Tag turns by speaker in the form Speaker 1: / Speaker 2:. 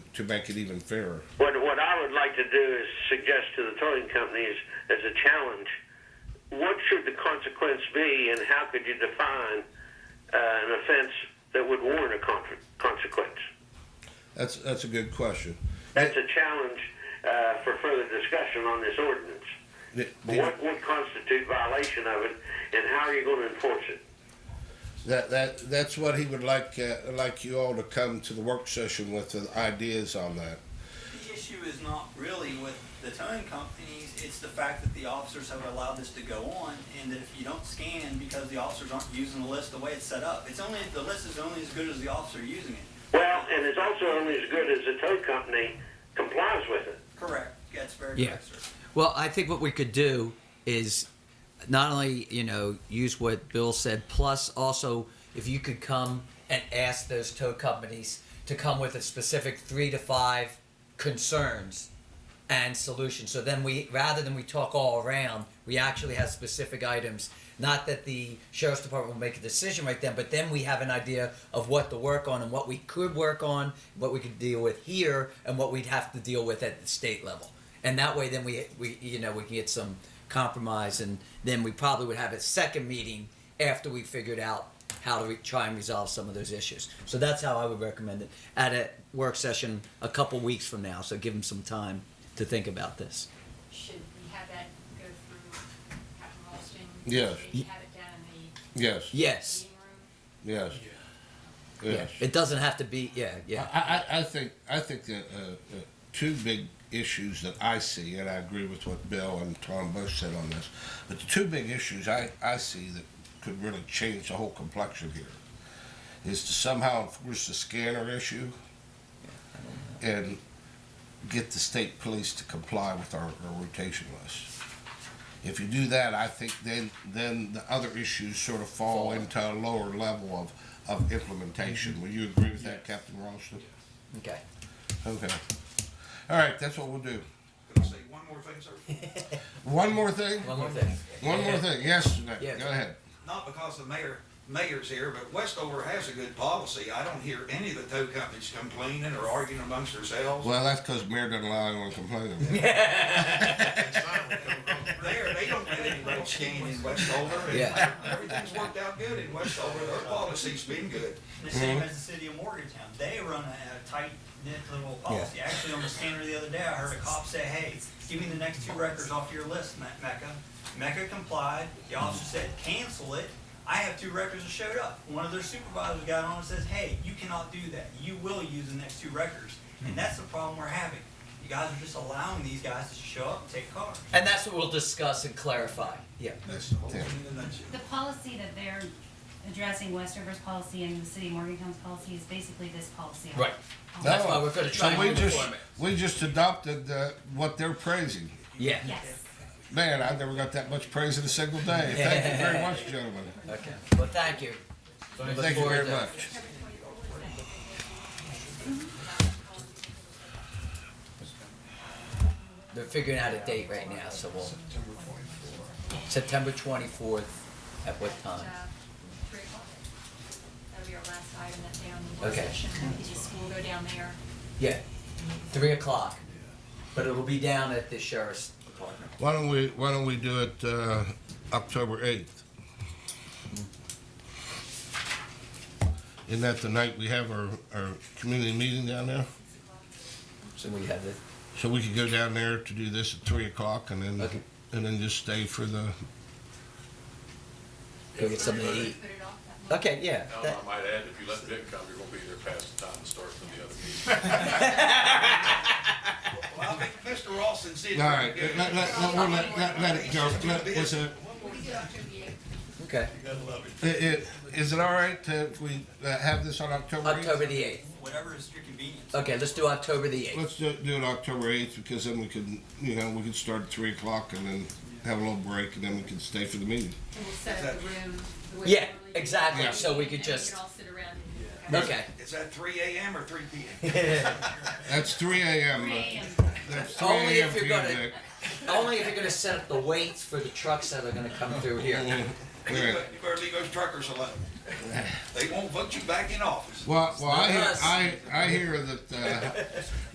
Speaker 1: to make it even fairer.
Speaker 2: What, what I would like to do is suggest to the towing companies as a challenge, what should the consequence be and how could you define uh, an offense that would warrant a con- consequence?
Speaker 1: That's, that's a good question.
Speaker 2: That's a challenge uh, for further discussion on this ordinance.
Speaker 1: The- the-
Speaker 2: What would constitute violation of it and how are you going to enforce it?
Speaker 1: That, that, that's what he would like, uh, like you all to come to the work session with the ideas on that.
Speaker 3: The issue is not really with the towing companies, it's the fact that the officers have allowed this to go on, and that if you don't scan because the officers aren't using the list the way it's set up, it's only, the list is only as good as the officer using it.
Speaker 2: Well, and it's also only as good as the tow company complies with it.
Speaker 3: Correct, that's very
Speaker 4: Yeah.
Speaker 3: correct, sir.
Speaker 4: Well, I think what we could do is not only, you know, use what Bill said, plus also if you could come and ask those tow companies to come with a specific three to five concerns and solutions. So then we, rather than we talk all around, we actually have specific items. Not that the sheriff's department will make a decision right then, but then we have an idea of what to work on and what we could work on, what we could deal with here, and what we'd have to deal with at the state level. And that way, then we, we you know, we can get some compromise, and then we probably would have a second meeting after we figured out how to re- try and resolve some of those issues. So that's how I would recommend it at a work session a couple weeks from now. So give them some time to think about this.
Speaker 5: Should we have that go through Captain Ralston?
Speaker 1: Yes.
Speaker 5: Maybe have it down in the
Speaker 1: Yes,
Speaker 4: Yes.
Speaker 5: meeting room?
Speaker 1: yes, yes.
Speaker 4: It doesn't have to be. Yeah. Yeah.
Speaker 1: I, I, I think I think that uh, uh, two big issues that I see, and I agree with what Bill and Tom both said on this, but the two big issues I, I see that could really change the whole complexion here is to somehow enforce the scanner issue and get the state police to comply with our, our rotation list. If you do that, I think then then the other issues sort of fall,
Speaker 4: Fall.
Speaker 1: into a lower level of, of implementation. Will you agree with that, Captain Ralston?
Speaker 4: Okay.
Speaker 1: Okay. All right, that's what we'll do.
Speaker 6: Can I say one more thing, sir?
Speaker 1: One more thing.
Speaker 4: One more thing.
Speaker 1: One more thing. Yesterday.
Speaker 4: Yeah.
Speaker 1: Go ahead.
Speaker 6: Not because the mayor, mayor's here, but Westover has a good policy. I don't hear any of the tow companies complaining or arguing amongst themselves.
Speaker 1: Well, that's because mayor doesn't allow anyone to complain. About it.
Speaker 6: There, they don't get any real scan in Westover. and
Speaker 4: Yeah.
Speaker 6: Everything's worked out good in Westover. Their policy's been good.
Speaker 3: The same as the city of Morgantown, they run a a tight knit little policy. Actually, on the scanner the other day, I heard a cop say, hey, give me the next two records off your list, Me- Mecca. Mecca complied, the officer said, cancel it. I have two records that showed up. One of their supervisors got on and says, hey, you cannot do that. You will use the next two records. And that's the problem we're having. You guys are just allowing these guys to show up and take cars.
Speaker 4: And that's what we'll discuss and clarify. Yeah.
Speaker 1: That's
Speaker 6: Whole
Speaker 1: yeah.
Speaker 6: thing in a nutshell.
Speaker 7: The policy that they're addressing, Westover's policy and the city of Morgantown's policy, is basically this policy. Um,
Speaker 4: Right. That's why we're going to try
Speaker 1: so
Speaker 4: and
Speaker 1: we
Speaker 4: move
Speaker 1: just
Speaker 4: forward.
Speaker 1: we just adopted uh, what they're praising.
Speaker 4: Yeah.
Speaker 7: Yes.
Speaker 1: Man, I never got that much praise in a single day. Thank you very much, gentlemen.
Speaker 4: Okay. Well, thank you. We look
Speaker 1: Thank you
Speaker 4: forward
Speaker 1: very
Speaker 4: to-
Speaker 1: much.
Speaker 4: They're figuring out a date right now, so we'll. September 24th. At what time?
Speaker 5: Uh, Three o'clock. That'll be our last item that day on the work
Speaker 4: Okay.
Speaker 5: session. We just, we'll go down there.
Speaker 4: Yeah. Three o'clock. But it'll be down at the sheriff's department.
Speaker 1: Why don't we Why don't we do it uh, October eighth? Isn't that the night we have our, our community meeting down there?
Speaker 4: So we have the
Speaker 1: So we could go down there to do this at three o'clock and then
Speaker 4: Okay.
Speaker 1: and then just stay for the
Speaker 4: go get something to eat.
Speaker 5: Put it off that month.
Speaker 4: Okay, yeah.
Speaker 8: Now,
Speaker 4: that-
Speaker 8: I might add, if you let Vic come, you're gonna be there past the time it starts from the other meeting.
Speaker 6: Well, I think Mr. Ralston said.
Speaker 1: All right, let, let, let, we'll let, let, let it go. Let, was it,
Speaker 5: We can do October the eighth.
Speaker 4: okay.
Speaker 1: it, it- is it all right to, if we uh, have this on October 8th?
Speaker 4: October the eighth.
Speaker 3: Whatever is your convenience.
Speaker 4: Okay, let's do October the eighth.
Speaker 1: Let's do, do it October 8th because then we can, you know, we can start at 3 o'clock and then have a little break and then we can stay for the meeting.
Speaker 5: And we'll set up the room the way. we
Speaker 4: Yeah,
Speaker 5: normally do.
Speaker 4: exactly.
Speaker 1: Yeah.
Speaker 4: So we could
Speaker 5: And we
Speaker 4: just
Speaker 5: can all sit around and.
Speaker 4: okay.
Speaker 6: Is that three AM or three PM?
Speaker 1: That's 3 a.m.
Speaker 5: Three
Speaker 1: uh,
Speaker 5: AM.
Speaker 1: That's 3
Speaker 4: Only
Speaker 1: a.m.
Speaker 4: if
Speaker 1: for
Speaker 4: you're
Speaker 1: you,
Speaker 4: gonna-
Speaker 1: Vic.
Speaker 4: Only if you're going to set up the weights for the trucks that are going to come through here.
Speaker 1: All right.
Speaker 6: You better leave those truckers alone. They won't vote you back in office.
Speaker 1: Well, well, I hear,
Speaker 4: Yes.
Speaker 1: I, I hear that, uh,